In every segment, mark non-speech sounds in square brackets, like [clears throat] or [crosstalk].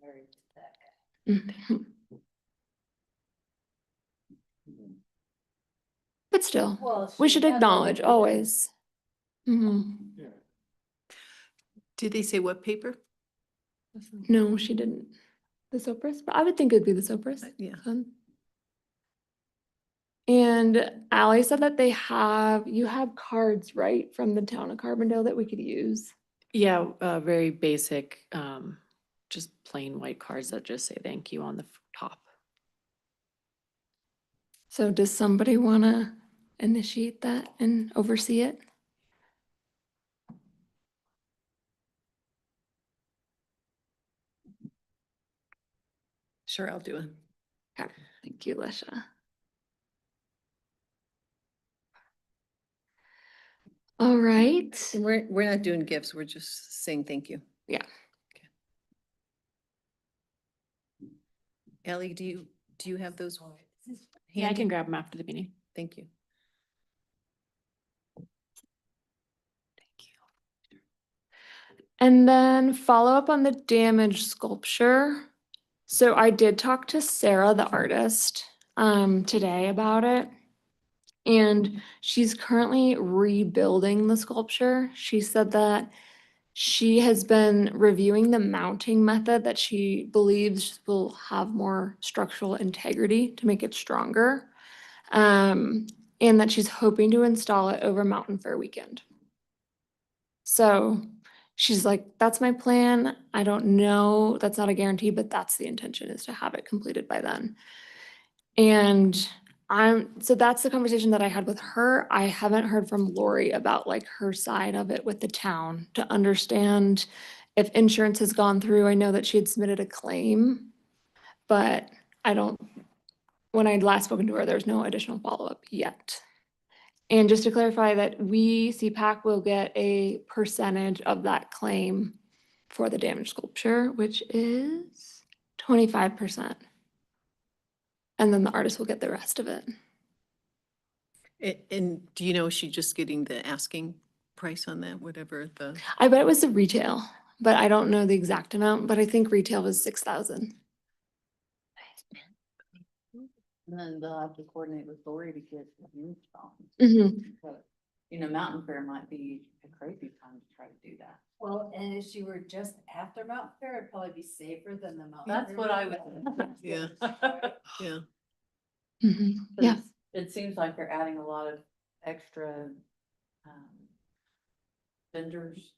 married to that guy. Mm-hmm. But still, Well. we she should had that acknowledge idea. always. Mhm. Did they say what paper? No, she didn't. The Sopris, but I would think it'd be the Sopris. Yeah. Um, And Ally said that they have, you have cards, right, from the town of Carbondale that we could use? Yeah, uh, very basic, um, just plain white cards that just say thank you on the f- top. So does somebody want to initiate that and oversee it? Sure, I'll do it. Thank you, Lisha. All right. And we're, we're not doing gifts, we're just saying thank you. Yeah. Okay. Ellie, do you, do you have those? Yeah, I handy? can grab them after the meeting. Thank you. And then follow up on the damaged sculpture. So I did talk to Sarah, the artist, um, today about it. And she's currently rebuilding the sculpture. She said that she has been reviewing the mounting method that she believes will have more structural integrity to make it stronger. Um, and that she's hoping to install it over Mountain Fair weekend. So she's like, that's my plan. I don't know. That's not a guarantee, but that's the intention is to have it completed by then. And I'm, so that's the conversation that I had with her. I haven't heard from Lori about like her side of it with the town to understand if insurance has gone through. I know that she had submitted a claim, but I don't, when I had last spoken to her, there's no additional follow-up yet. And just to clarify that we, CPAC will get a percentage of that claim for the damaged sculpture, which is twenty-five percent. And then the artist will get the rest of it. And, and do you know, is she just getting the asking price on that, whatever the, I bet it was the retail, but I don't know the exact amount, but I think retail was six thousand. And then they'll have to coordinate with Lori to get the install. Mm-hmm. But, you know, Mountain Fair might be a crazy time to try to do that. Well, and if she were just after Mount Fair, it'd probably be safer than the Mount. That's Fair what I weekend. [laughs] would- Yeah. yeah, Mm-hmm. Yeah. 'Cause It seems like they're adding a lot of extra, um, vendors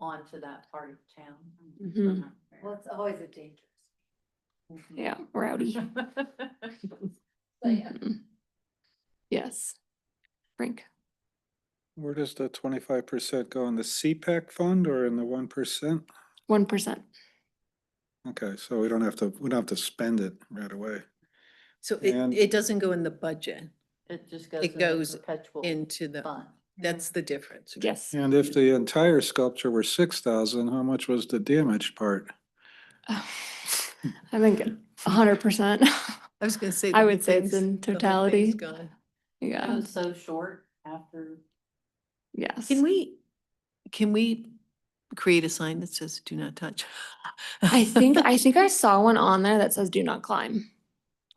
onto that part of town. Mm-hmm. Mhm. Well, it's always a dangerous. Mhm. Yeah, [laughs] rowdy. [laughs] So, yeah. Mhm. Yes. Frank, Where does the twenty-five percent go in the CPAC fund or in the one percent? one percent. Okay, so we don't have to, we don't have to spend it right away. so it, And- it doesn't go in the budget It just goes. It into goes uh, Perpetual into the, fund. that's the difference. [laughs] right? Yes. And if the entire sculpture were six thousand, how much was the damaged part? I think a hundred percent. I was gonna say. the I whole would say it's thing's- in the whole totality. thing's gone. It Yeah, was so short after. yes. Can we, can we create a sign that says do not touch? I think, I think I saw one on there that says do not climb.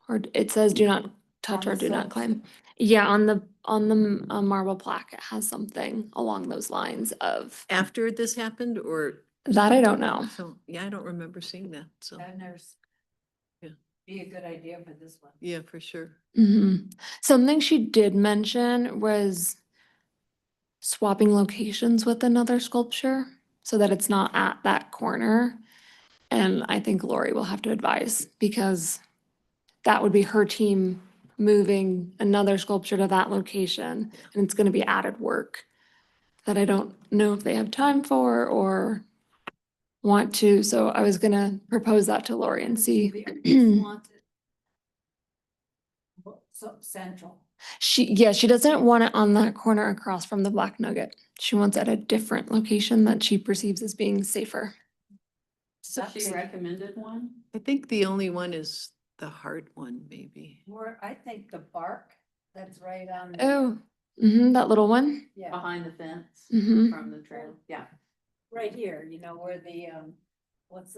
Or d- it says do not touch On or the do not socks. climb. Yeah, on the, on the m- uh, marble plaque, it has something along those lines of, [laughs] After this happened or? that I don't know. So, yeah, I don't remember seeing that, so, I've never. s- Yeah. Be a good idea for this one. yeah, for sure. Mhm. Something she did mention was swapping locations with another sculpture so that it's not at that corner. And I think Lori will have to advise because that would be her team moving another sculpture to that location and it's gonna be added work that I don't know if they have time for or want to. So I was gonna propose that to Lori and see. [clears throat] So central. She, yeah, she doesn't want it on that corner across from the Black Nugget. She wants it at a different location that she perceives as being safer. So she recommended one? I think the only one is the hard one, maybe. More, I think the bark that's right on. the- Oh, hmm that little one. Yeah, Behind the fence hmm from the trail, yeah. right here, you know, where the, um, what's